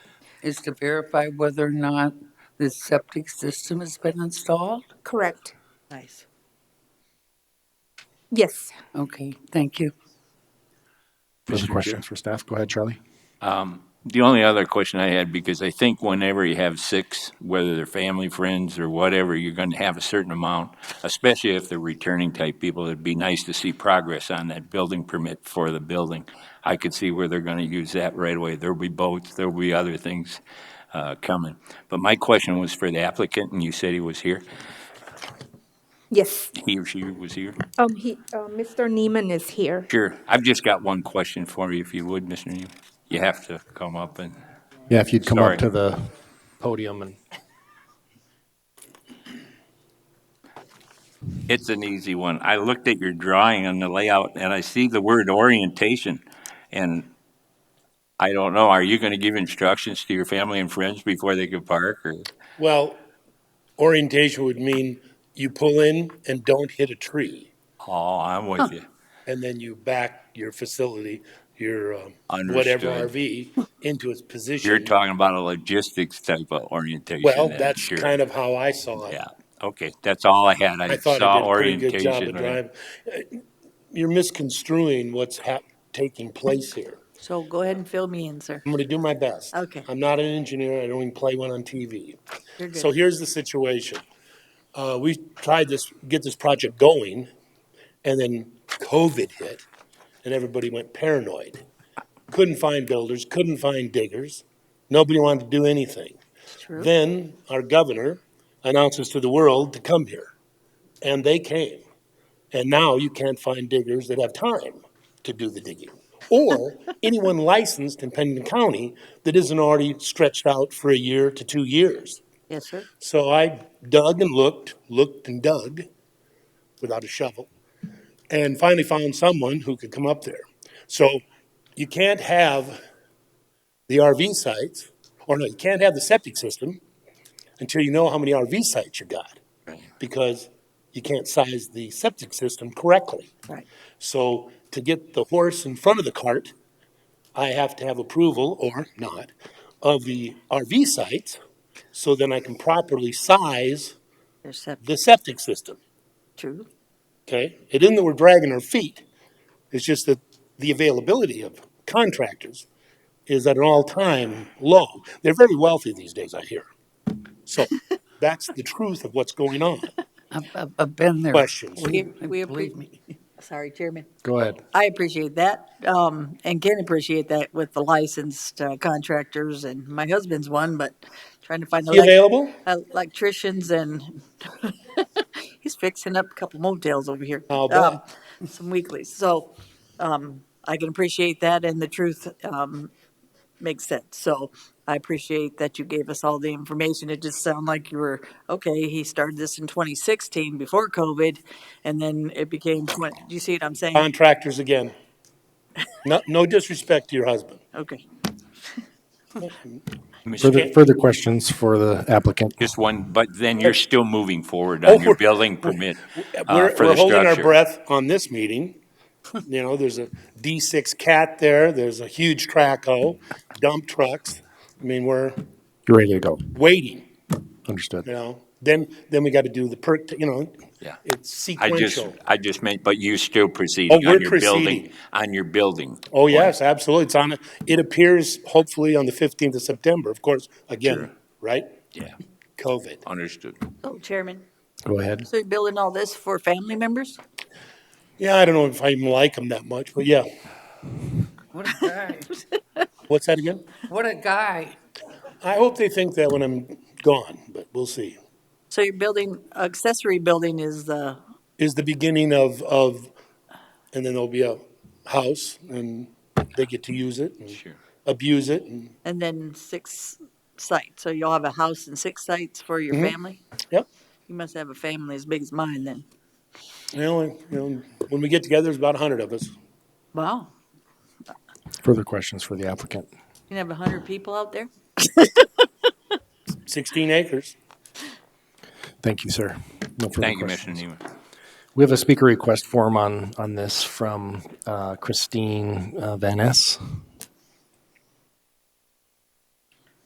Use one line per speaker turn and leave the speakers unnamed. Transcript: is to verify whether or not the septic system has been installed?
Correct.
Nice.
Yes.
Okay, thank you.
Those
Mr.
are
Chair.
questions for staff. Go ahead, Charlie.
The only other question I had, because I think whenever you have six, whether they're family, friends, or whatever, you're going to have a certain amount, especially if they're returning type people, it'd be nice to see progress on that building permit for the building. I could see where they're going to use that right away. There'll be boats, there'll be other things uh, coming. But my question was for the applicant, and you said he was here.
Yes.
He or she was here?
Um, he, uh, Mr. Neiman is here.
Sure. I've just got one question for you, if you would, Mr. Neal. You have to come up and,
Yeah, if you'd come
Sorry.
up to the podium and
it's an easy one. I looked at your drawing and the layout, and I see the word orientation, and I don't know, are you going to give instructions to your family and friends before they can park, or?
Well, orientation would mean you pull in and don't hit a tree,
Oh, I'm with you.
and then you back your facility, your um, whatever RV, into its position.
You're talking about a logistics type of orientation.
well,
then,
that's
sure.
kind of how I saw it.
Yeah, okay, that's all I had. I
I thought
saw
I did a pretty good job
orientation.
of
right?
driving. Uh, You're misconstruing what's hap- taking place here.
So go ahead and fill me in, sir.
I'm going to do my best.
Okay.
I'm not an engineer. I don't even play one on TV.
You're good.
So here's the situation. Uh, we tried this, get this project going, and then COVID hit, and everybody went paranoid. Couldn't find builders, couldn't find diggers. Nobody wanted to do anything.
True.
Then our governor announces to the world to come here, and they came. And now you can't find diggers that have time to do the digging, or anyone licensed in Pennington County that isn't already stretched out for a year to two years.
Yes, sir.
So I dug and looked, looked and dug without a shovel, and finally found someone who could come up there. So you can't have the RV sites, or no, you can't have the septic system until you know how many RV sites you got because you can't size the septic system correctly.
Right.
So to get the horse in front of the cart, I have to have approval or not of the RV sites so then I can properly size
There's septic.
the septic system.
True.
Okay? It isn't that we're dragging our feet. It's just that the availability of contractors is at an all-time low. They're very wealthy these days, I hear. So that's the truth of what's going on.
I've, I've- I've been there.
Questions?
We,
I
we,
Believe
appre-
me.
sorry, Chairman.
go ahead.
I appreciate that, um, and can appreciate that with the licensed uh, contractors, and my husband's one, but trying to find the
You
elec-
available?
electricians and he's fixing up a couple motels over here.
I'll
Um, Some weeklies, so, um, I can appreciate that and the truth, um, makes sense. So I appreciate that you gave us all the information. It just sounded like you were, okay, he started this in twenty sixteen before COVID, and then it became, what, do you see what I'm saying?
Contractors again. No, no disrespect to your husband.
Okay.
Further, further questions for the applicant.
Just one, but then you're still moving forward
Oh,
on your
we're-
building permit uh,
We're,
for the
we're holding our
structure.
breath on this meeting. You know, there's a D6 cat there, there's a huge track hoe, dump trucks. I mean, we're
You're ready to go.
waiting, you
Understood.
know? Then, then we got to do the perk, you know,
Yeah.
it's
I just,
sequential. Oh,
I just meant, but you still proceeding
we're
on your building,
proceeding.
on your building.
Oh, yes, absolutely. It's on, it appears hopefully on the 15th of September, of course, again, right?
Yeah,
COVID.
understood.
Oh, Chairman,
Go ahead.
so you're building all this for family members?
Yeah, I don't know if I even like them that much, but yeah.
What a guy.
What's that again?
What a guy.
I hope they think that when I'm gone, but we'll see.
So your building, accessory building is the,
Is the beginning of, of, and then there'll be a house and they get to use it and
Sure.
abuse it and,
and then six sites, so you'll have a house and six sites for your family?
yep.
You must have a family as big as mine then.
You know, you know, when we get together, there's about a hundred of us.
Wow,
Further questions for the applicant.
you have a hundred people out there?
Sixteen acres.
Thank you, sir. No further
Thank you,
questions.
Mr. Neiman.
We have a speaker request form on, on this from uh, Christine uh, Van Ness.